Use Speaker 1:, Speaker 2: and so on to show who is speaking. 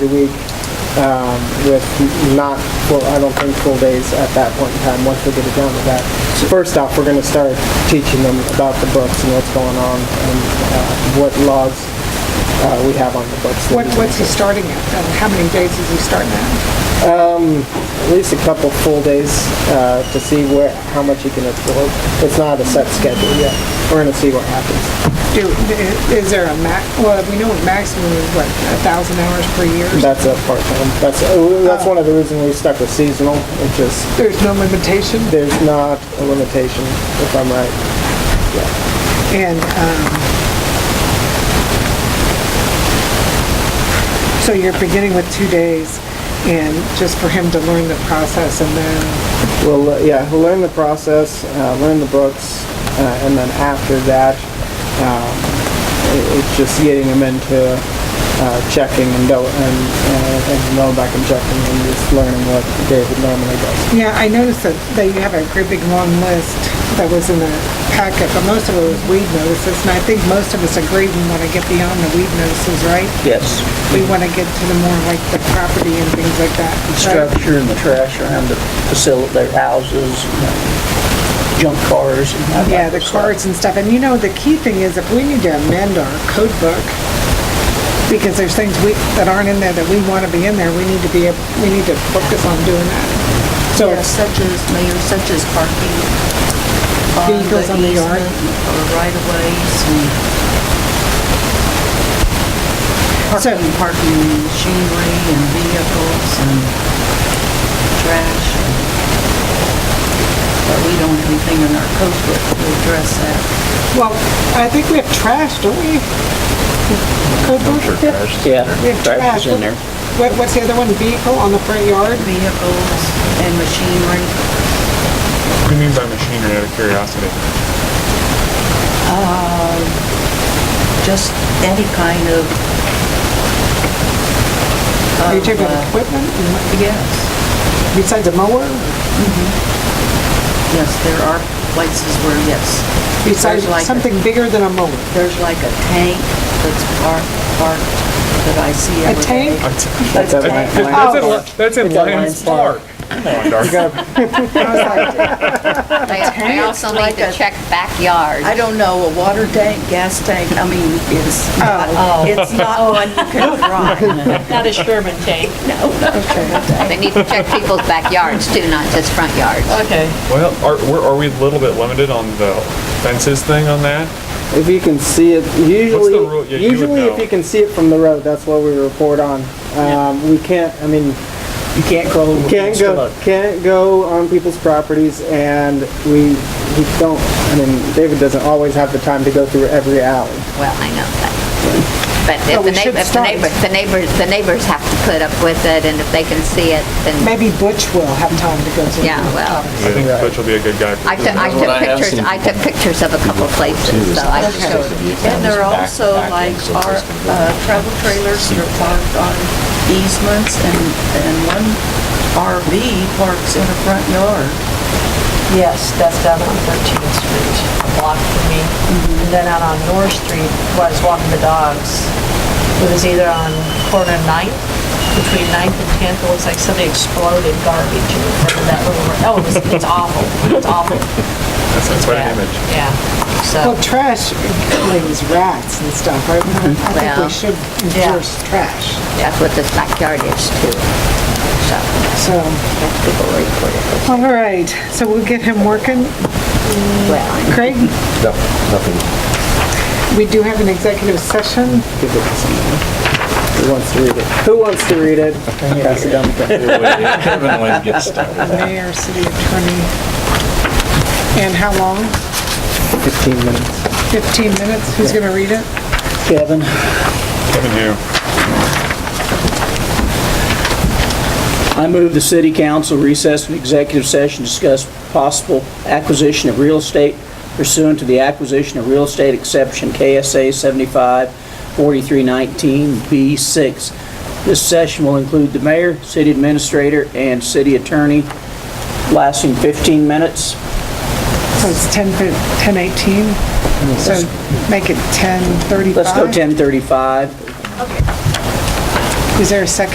Speaker 1: a week um, with not, full I don't think full days at that point in time, once we get it down to that. First off, we're gonna start teaching them about the books and what's going on and uh, what logs uh, we have on the books.
Speaker 2: What, what's he starting at? And how many days is he starting at?
Speaker 1: At least a couple full days uh, to see where, how much you can absorb. It's not a set schedule yet. We're gonna see what happens.
Speaker 2: Do, is there a max, well, we know a maximum is what, a thousand hours per year?
Speaker 1: That's a part-time, that's, uh, that's
Speaker 2: Uh,
Speaker 1: one of the reasons we stuck with seasonal, which is
Speaker 2: There's no limitation?
Speaker 1: There's not a limitation, if I'm right.
Speaker 2: And, um, so you're beginning with two days and just for him to learn the process and then,
Speaker 1: We'll, uh, yeah, we'll learn the process, uh, learn the books, uh, and then after that, um, i- it's just getting them into uh, checking and, do- and, uh, and, and going back and checking and just learning what David normally does.
Speaker 2: yeah, I noticed that, that you have a great big long list that was in the packet, but most of it was weed notices. And I think most of us agree we want to get beyond the weed notices, right?
Speaker 3: Yes.
Speaker 2: We want to get to the more like the property and things like that. Right?
Speaker 3: Structure and the trash around the facility, their houses, you know, junk cars and that.
Speaker 2: Yeah,
Speaker 3: type
Speaker 2: the
Speaker 3: of stuff.
Speaker 2: cards and stuff. And you know, the key thing is if we need to amend our code book, because there's things we, that aren't in there that we want to be in there, we need to be, ab- we need to focus on doing that. So
Speaker 4: Yeah,
Speaker 2: it's,
Speaker 4: such as, Mayor, such as parking on
Speaker 2: Vehicles on
Speaker 4: the
Speaker 2: the yard.
Speaker 4: easement or right-of-ways and
Speaker 2: So-
Speaker 4: parking, parking machinery and vehicles and trash. and- But we don't have anything in our code book to address that.
Speaker 2: well, I think we have trash, don't we? Code book? We have
Speaker 3: Yeah, trash is in there.
Speaker 2: What, what's the other one? Vehicle on the front yard?
Speaker 4: Vehicles and machinery.
Speaker 5: What do you mean by machinery out of curiosity?
Speaker 4: just any kind of,
Speaker 2: Are you talking about
Speaker 4: uh,
Speaker 2: equipment?
Speaker 4: yes.
Speaker 2: Besides a mower?
Speaker 4: Yes, there are places where, yes,
Speaker 2: Besides
Speaker 4: like a-
Speaker 2: something bigger than a mower?
Speaker 4: there's like a tank that's parked, parked that I see
Speaker 2: A
Speaker 4: every day.
Speaker 2: tank?
Speaker 1: That's at my
Speaker 4: Okay.
Speaker 1: my-
Speaker 5: That's in Lions Park. Come on, Darcy.
Speaker 6: I I also
Speaker 4: Like
Speaker 6: need to
Speaker 4: a-
Speaker 6: check backyard.
Speaker 4: I don't know, a water tank, gas tank, I mean, it's
Speaker 2: Oh.
Speaker 4: not, it's not one you can drive.
Speaker 7: Not a Sherman tank.
Speaker 6: They need to check people's backyards too, not just front yards.
Speaker 7: Okay.
Speaker 5: Well, are, we're- are we a little bit limited on the fences thing on that?
Speaker 1: If you can see it, usually,
Speaker 5: rule? Yeah, you would
Speaker 1: usually if
Speaker 5: know.
Speaker 1: you can see it from the road, that's what we report on. Um, we can't, I mean,
Speaker 3: You can't go.
Speaker 1: Can't go, can't go on people's properties, and we, we don't, I mean, David doesn't always have the time to go through every alley.
Speaker 6: Well, I know that. But if
Speaker 2: we
Speaker 6: the
Speaker 2: should
Speaker 6: neighbor, if the
Speaker 2: start.
Speaker 6: neighbor, the neighbors, the neighbors have to put up with it and if they can see it, then,
Speaker 2: Maybe Butch will have time to go to.
Speaker 6: yeah, well.
Speaker 5: I think Butch will be a good guy. for
Speaker 6: I took, I took pictures, I took pictures of a couple places, so I can show it.
Speaker 4: And there are also like our uh, travel trailers that are parked on easements and, and one RV parks in a front yard.
Speaker 7: Yes, that's down on 13th Street, a block from me. And then out on North Street, where I was walking the dogs, it was either on corner 9th, between 9th and 10th, it looks like somebody exploded garbage in front of that little, oh, it was- it's awful, it's awful.
Speaker 5: That's a quite an image.
Speaker 7: Yeah, so,
Speaker 2: Well, trash includes rats and stuff, right? I think we
Speaker 6: Mm-hmm. Well,
Speaker 2: should enforce trash,
Speaker 6: That's what this backyard is too. So,
Speaker 2: so.
Speaker 6: that's people report it.
Speaker 2: All right, so we'll get him working.
Speaker 6: Well, I-
Speaker 2: Craig? No, nothing. We do have an executive session.
Speaker 1: Give it to someone who wants to read it. Who wants to read it? Pass it down to Kevin.
Speaker 2: Mayor, city attorney. And how long?
Speaker 1: Fifteen minutes.
Speaker 2: 15 minutes? Who's going to read it?
Speaker 3: Kevin,
Speaker 5: Kevin Hume.
Speaker 3: I move the city council recess an executive session, to discuss possible acquisition of real estate pursuant to the acquisition of real estate exception KSA 75 4319 b 6 This session will include the mayor, city administrator, and city attorney, lasting 15 minutes.
Speaker 2: So it's 10, 10:18? So make it 10:35?
Speaker 3: Let's go 10:35.
Speaker 2: Is there a second?